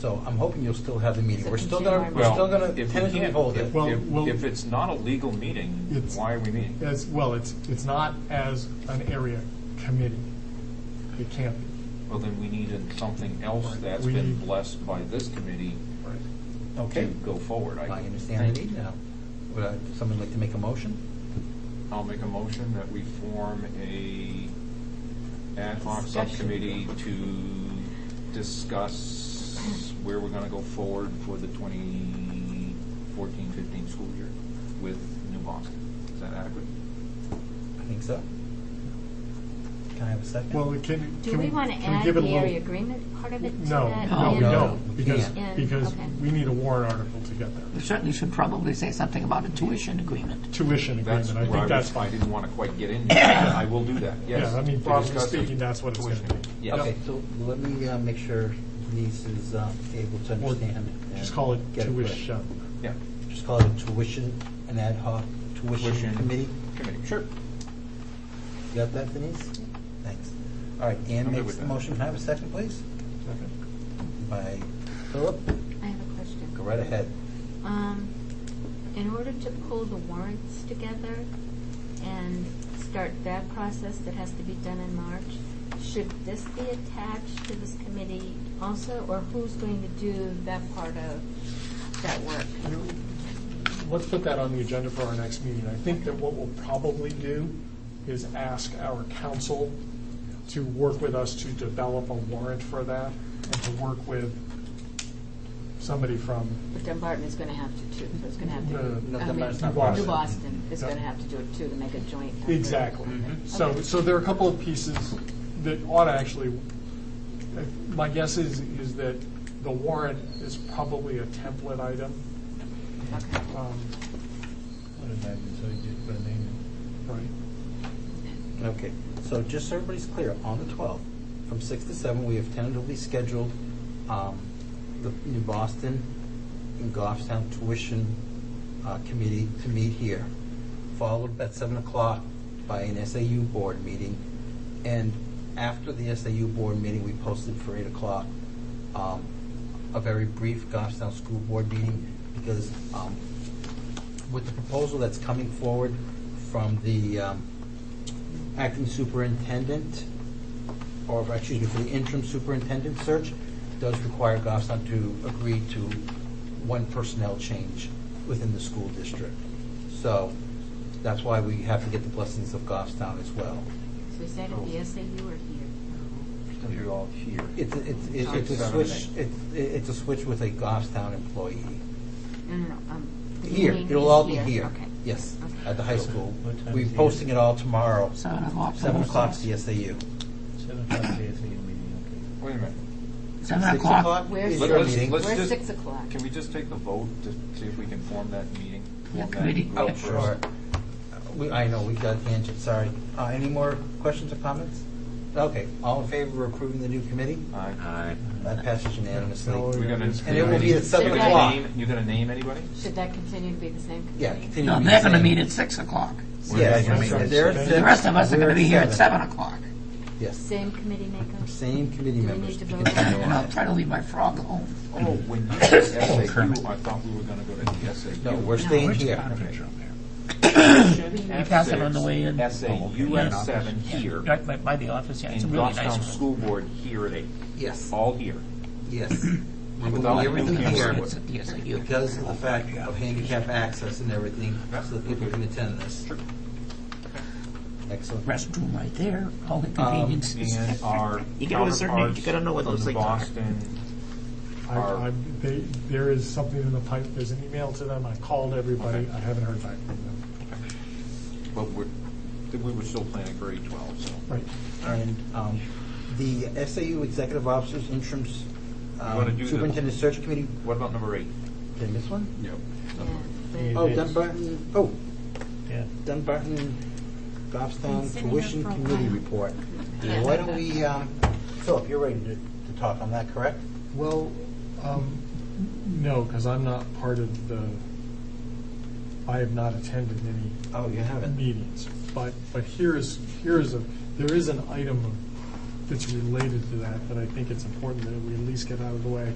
So I'm hoping you'll still have the meeting. It's a We're still consumer gonna, we're market. still gonna Well, if we tentatively can't- hold if- it. Well, if- well- If it's not a legal meeting, It's- why are we meeting? As, well, it's, it's not as an area committee. It can't be. Well, then we need something else Right. that's We been need- blessed by this committee to Okay, go forward. I I, understand the need now. Would I- someone like to make a motion? I'll make a motion that we form a ad hoc Discussion. subcommittee to discuss where we're gonna go forward for the 2014-15 school year with New Boston. Is that adequate? I think so. Can I have a second? Well, it can, Do can we, we want to can we add give it a the area little? agreement part of it to No, that? no, we in- No, don't, we because, can't. In- because okay. we need a warrant article to get there. We certainly should probably say something about a tuition agreement. Tuition That's agreement, I where think that's was- I fine. didn't wanna quite get into that. I will do that, yes. Yeah, I mean, to broadly discuss the speaking, that's what it's gonna tuition. be. Yes. Okay, so let me uh, make sure Denise is um, able to Or understand. and Just call it get correct. tuition. Yeah, Just call it a tuition, an ad hoc tuition Tuition. committee. committee, sure. You got that, Denise? Thanks. All right, I'm Ann good makes with the that. motion. Can I have a second, please? By Philip. I have a question. Go right ahead. Um, in order to pull the warrants together and start that process that has to be done in March, should this be attached to this committee also, or who's going to do that part of that work? Let's put that on the agenda for our next meeting. I think that what we'll probably do is ask our council to work with us to develop a warrant for that and to work with somebody from, But Dunbarton is going to have to too, so it's going to have to. No, be- no, I mean, Dunbarton's not part of New it. Boston is No. going to have to do it too, to make a joint. effort. exactly. So, Mm-hmm. Okay. so there are a couple of pieces that ought to actually, my guess is, is that the warrant is probably a template item. Okay. um, Right. Okay, so just so everybody's clear, on the 12th, from 6 to 7, we have tentatively scheduled um, the New Boston and Goffstown Tuition uh, Committee to meet here, followed at 7 o'clock by an SAU Board meeting. And after the SAU Board meeting, we posted for 8 o'clock um, a very brief Goffstown School Board meeting because um, with the proposal that's coming forward from the um, acting superintendent, or excuse me, for the interim superintendent search, does require Goffstown to agree to one personnel change within the school district. So that's why we have to get the blessings of Goffstown as well. So is that at the SAU or here? It's gonna be all here. It's, a- it's, it's a switch, it's, it's a switch with a Goffstown employee. No, no, no. um, the Here, meeting it'll is all be here. Okay. Yes, Okay. at the high school. What time We're is it? posting it all tomorrow, Seven o'clock. seven o'clock, CSAU. Seven o'clock is the meeting, Wait a minute. Seven Six o'clock. o'clock Where's- is Let- your let's- meeting. let's- We're just- six o'clock. Can we just take the vote to see if we can form that meeting? Yeah, form that committee. group Oh, Yeah, first? sure. Uh, We, I know, we got tangent, sorry. Uh, any more questions or comments? Okay, all in favor of approving the new committee? Aye. Uh, That passes unanimously. No. We're gonna- And it will be at seven You're gonna o'clock. name- You're gonna name anybody? Should that continue to be the same committee? Yeah, continue. No, to be they're the going to same. meet at six o'clock. Yes, That's right. they're at The The six, rest of us are we're going to be here at seven o'clock. Yes, Same committee makeup? same committee Do we members. need to begin vote? to And I'll arrive. try to leave my frog home. Oh, when you said Oh, Kermit. SAU, I thought we were gonna go to the SAU. No, we're staying it's here. not. Session at pass it on six, the way in. Oh, SAU at Yeah. seven here, Right by- by the office, yeah. It's a and really Goffstown nice room. School Board here at eight, Yes, all here. yes. We will Without do everything everything else. here It's at the SAU. because of the fact of handicap access and everything, so that people can attend this. Excellent. Restroom right there, all the conveniences. And our You gotta ascertain- you counterparts gotta know what from those things are. Boston I, Are- I, they, there is something in the pipe, there's an email to them, I called everybody, I haven't heard back from them. But we're, we were still planning for eight twelve, so. Right. And um, the SAU Executive Officers Interim s- um, wanna do the- Superintendent Search Committee, What about number eight? did I miss one? No. Yeah, Oh, It is. Dunbarton, oh, yeah. Dunbarton Goffstown Been sitting there Tuition for a Committee while. Report. Why don't we, um, Philip, you're ready to to talk on that, correct? Well, um, no, because I'm not part of the, I have not attended any Oh, you haven't? meetings. But, but here is, here is a, there is an item that's related to that, that I think it's important that we at least get out of the way.